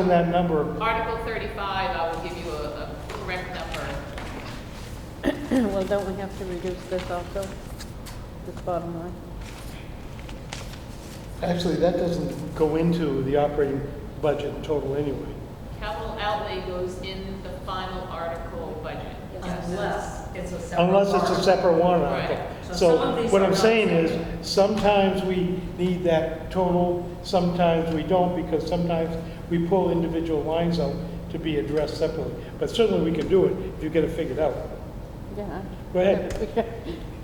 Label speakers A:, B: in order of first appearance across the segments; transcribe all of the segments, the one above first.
A: in that number,
B: Article 35, I will give you a a correct number.
C: Well, don't we have to reduce this also, this bottom line?
A: actually, that doesn't go into the operating budget total anyway.
B: Capital outlay goes in the final article budget.
D: Unless it's a separate.
A: Unless it's a
D: warrant.
A: separate warrant article.
D: Right. So some of
A: So
D: these
A: what
D: are
A: I'm
D: not
A: saying
D: separate.
A: is, sometimes we need that total, sometimes we don't, because sometimes we pull individual lines out to be addressed separately. But certainly we can do it if you get it figured out.
C: Yeah.
A: Go ahead.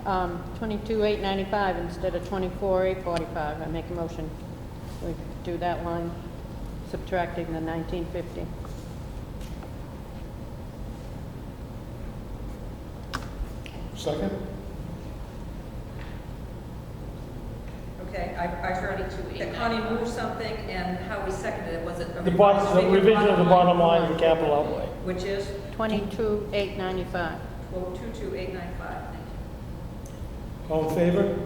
C: Um, twenty-two, eight ninety-five instead of twenty-four, eight forty-five. I make a motion. We do that line, subtracting the nineteen fifty.
A: Second?
D: Okay, I, I already, that Connie moved something and how we seconded it, was it? a
A: The bottom,
D: revised
A: the revision of the bottom
C: line.
A: line in capital outlay.
D: Which is
C: Twenty-two, eight ninety-five.
D: twelve two two eight nine five, thank you.
A: All in favor?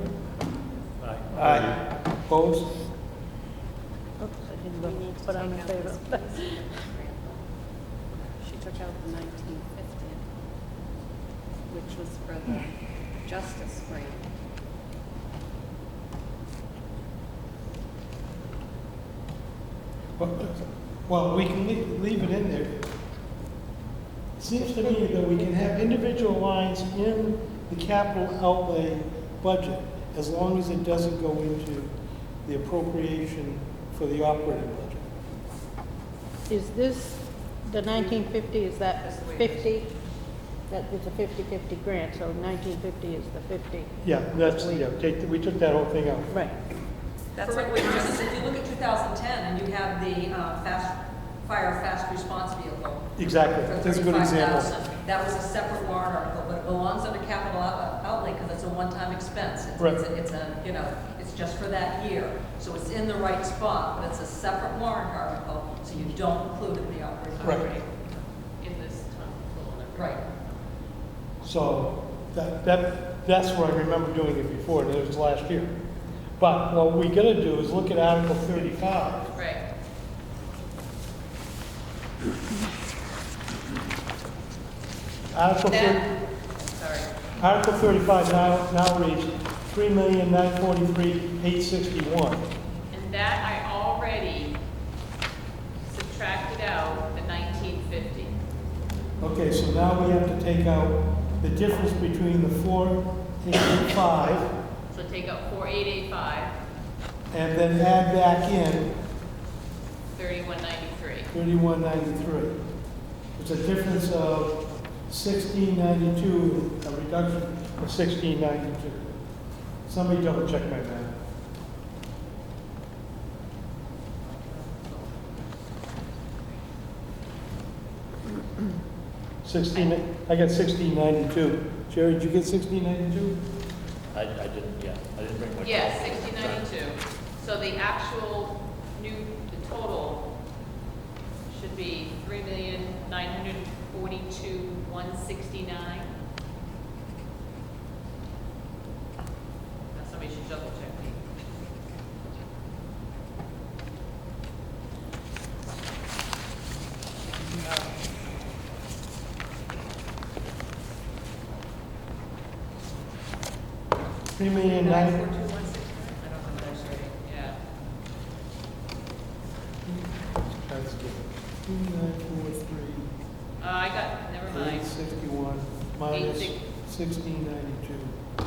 A: Aye. Aye. Opposed?
C: Oops, I didn't look, but I'm in favor.
E: She took out the nineteen fifty, which was for the justice grant.
A: Well, we can leave, leave it in there. Seems to me that we can have individual lines in the capital outlay budget as long as it doesn't go into the appropriation for the operating budget.
C: Is this, the nineteen fifty, is that
D: That's the way it is.
C: fifty? That is a fifty-fifty grant, so nineteen fifty is the fifty.
A: Yeah, that's, yeah, take, we took that whole thing out.
C: Right.
D: That's what we just, if you look at two thousand ten and you have the, uh, fast, fire fast response vehicle.
A: Exactly,
D: for
A: that's a good example.
D: 35,000. That was a separate warrant article, but it belongs under capital out- uh, outlay because it's a one-time expense. It's-
A: Right.
D: It's, a- it's a, you know, it's just for that year. So it's in the right spot, but it's a separate warrant article, so you don't include it in the operating.
A: Right.
D: budget.
B: In this total number.
D: Right.
A: So that, that, that's where I remember doing it before, and it was last year. But what we gotta do is look at Article thirty-five
B: Right.
A: Article, thir-
B: That, sorry.
A: Article thirty-five now, now reads three million nine forty-three eight sixty-one.
B: And that I already subtracted out the 1950.
A: Okay, so now we have to take out the difference between the four eighty-five
B: So take out 4885,
A: and then add back in
B: 3193.
A: thirty-one ninety-three. It's a difference of sixteen ninety-two, a reduction of sixteen ninety-two. Somebody double check my math. Sixteen, I got sixteen ninety-two. Jerry, did you get sixteen ninety-two?
F: I, I didn't, yeah, I didn't bring my.
B: Yes,
F: copy.
B: 1692. So the actual new, the total should be 3,942,169. Now somebody should double check me.
A: Three million nine,
B: 942,169? I don't know if that's right. Yeah.
A: that's good. Three nine four three,
B: Uh, I got, never mind.
A: eight sixty-one, minus
B: Eight
A: sixteen ninety-two.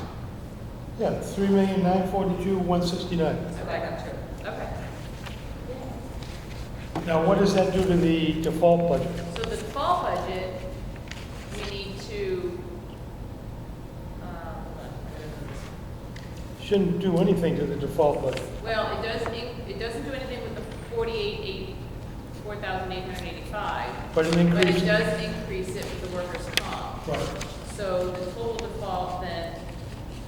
A: Yeah, three million nine forty-two, one sixty-nine.
D: So back up to.
B: Okay.
A: Now, what does that do to the default budget?
B: So the default budget, we need to, um, hold on, where is this?
A: Shouldn't do anything to the default budget.
B: Well, it does, in- it doesn't do anything with the forty-eight, eight, four thousand eight hundred eighty-five,
A: But an
B: but
A: increase.
B: it does increase it with the workers' comp.
A: Right.
B: So the total default then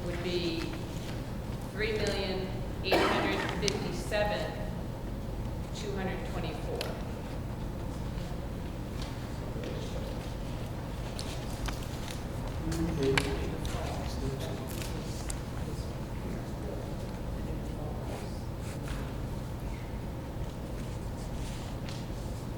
B: would be three million, eight hundred fifty-seven, two hundred twenty-four.
A: Eight,